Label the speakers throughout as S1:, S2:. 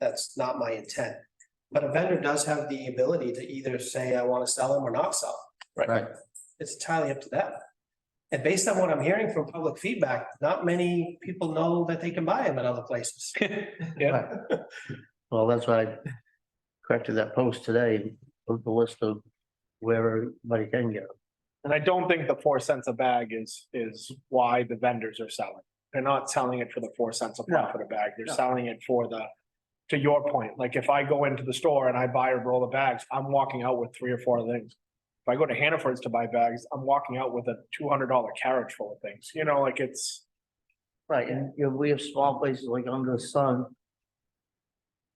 S1: that's not my intent. But a vendor does have the ability to either say, I want to sell them or not sell. 'em.
S2: Right.
S1: It's entirely up to them. And based on what I'm hearing from public feedback, not many people know that they can buy them at other places.
S2: Well, that's why I corrected that post today, with the list of where everybody can get. them.
S3: And I don't think the four cents a bag is, is why the vendors are selling. They're not selling it for the four cents a profit a bag. They're selling it for the, to your point, like if I go into the store and I buy a roll of bags, I'm walking out with three or four things. If I go to Hannaford's to buy bags, I'm walking out with a two hundred dollar carriage full of things, you know, like it's,
S2: Right, and you know, we have small places like Under the Sun.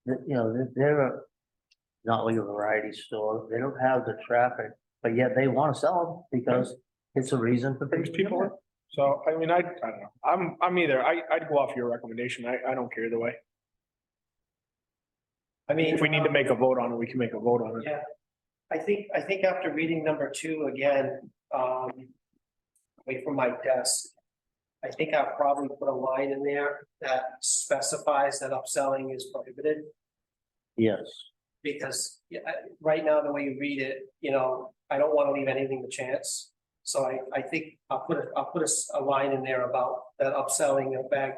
S2: That, you know, that they're a- not like a variety store, they don't have the traffic, but yet they want to sell them because it's a reason for
S3: brings people in. So, I mean, I, I don't know. I'm, I'm either, I, I'd go off your recommendation. I, I don't care either way.
S1: I mean.
S3: If we need to make a vote on it, we can make a vote on it.
S1: Yeah. I think, I think after reading number two again, um, away from my desk. I think I'll probably put a line in there that specifies that upselling is prohibited.
S2: Yes,
S1: Because yeah, I- right now, the way you read it, you know, I don't want to leave anything to chance. So I, I think I'll put, a- I'll put a, s- a line in there about that upselling of bag.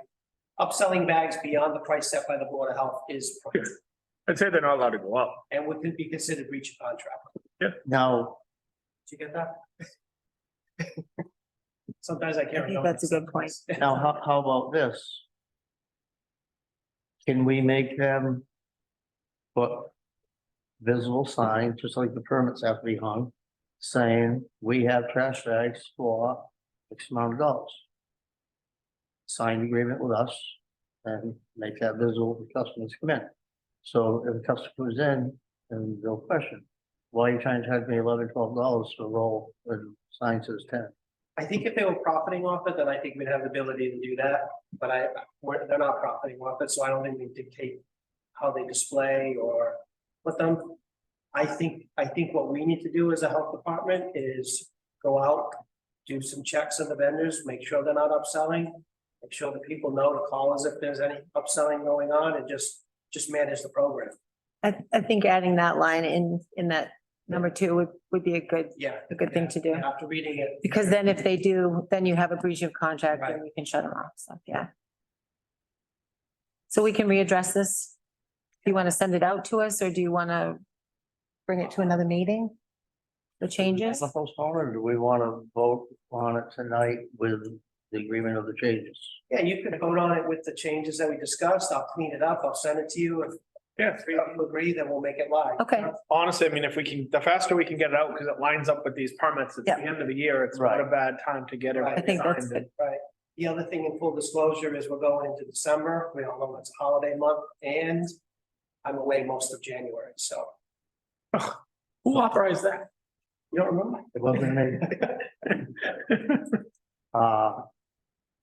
S1: Upselling bags beyond the price set by the Board of Health is, prohibited
S3: I'd say they're not allowed to go up.
S1: and would be considered breach of contract.
S2: now,
S1: Did you get that? Sometimes I can't
S4: I think
S1: remember.
S4: that's a good point.
S2: now, how, how about this? Can we make them? Put visible signs, just like the permits have to be hung, saying we have trash bags for X amount of dollars. Sign an agreement with us and make that visible to customers come in. So if a customer comes in and they'll question, why are you trying to charge me eleven, twelve dollars for a roll and sign says ten?
S1: I think if they were profiting off it, then I think we'd have the ability to do that, but I, we're, they're not profiting off it, so I don't think we dictate how they display or put them. I think, I think what we need to do as a health department is go out, do some checks on the vendors, make sure they're not upselling. Make sure the people know to call us if there's any upselling going on and just, just manage the program.
S4: I, I think adding that line in, in that number two would, would be a good,
S1: Yeah.
S4: a good thing to do.
S1: After reading it,
S4: Because then if they do, then you have a breach of contract
S1: Right.
S4: and you can shut them off, so, yeah. So we can readdress this? Do you want to send it out to us or do you want to bring it to another meeting? The changes?
S2: The postpone or do we want to vote on it tonight with the agreement of the changes?
S1: Yeah, you could vote on it with the changes that we discussed. I'll clean it up. I'll send it to you. If
S3: Yeah.
S1: three of you agree, then we'll make it live.
S4: Okay.
S3: Honestly, I mean, if we can, the faster we can get it out, because it lines up with these permits at the end of the year, it's not a bad time to get
S1: Right.
S3: everything.
S1: I
S4: think that's
S3: signed.
S1: Right. The other thing in full disclosure is we're going into December. We all know it's a holiday month and I'm away most of January, so.
S3: Who authorized that?
S1: You don't remember?
S2: It wasn't me. Uh,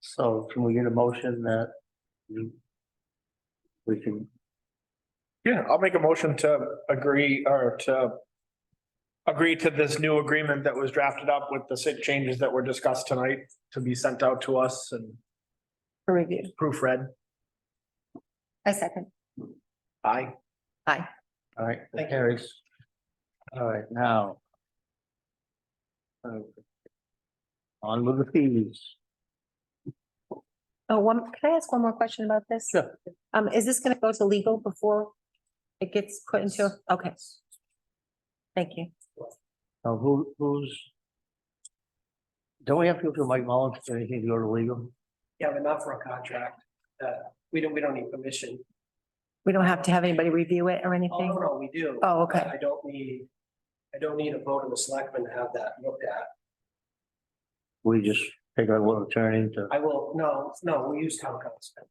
S2: so can we get a motion that you- we can,
S3: Yeah, I'll make a motion to agree or to agree to this new agreement that was drafted up with the six changes that were discussed tonight to be sent out to us and
S4: For review.
S3: proofread.
S4: I second.
S3: Aye.
S2: all right, that
S1: Thank you.
S2: carries. All right, now. Okay. On with the fees.
S4: Oh, one, can I ask one more question about this?
S2: Sure.
S4: Um, is this going to go to legal before it gets put into, okay. Thank you.
S2: Now, who, who's? Don't we have to go through Mike Mullins or anything to go to legal?
S1: You have enough for a contract. Uh, we don't, we don't need permission.
S4: We don't have to have anybody review it or
S1: Oh, no,
S4: anything?
S1: no, we do.
S4: Oh, okay.
S1: I don't need, I don't need a vote of the selectmen to have that looked at.
S2: We just take our little attorney to.
S1: I will, no, no, we use town council.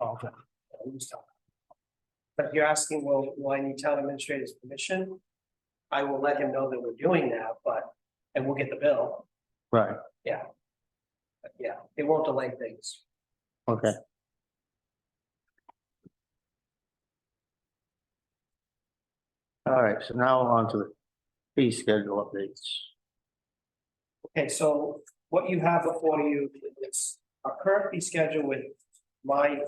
S2: Okay.
S1: I'll use town. But if you're asking, well, will I need town administrator's permission? I will let him know that we're doing that, but, and we'll get the bill,
S2: Right,
S1: but yeah, it won't delay things.
S2: okay. All right, so now on to the fee schedule updates.
S1: Okay, so what you have before you is a current fee schedule with my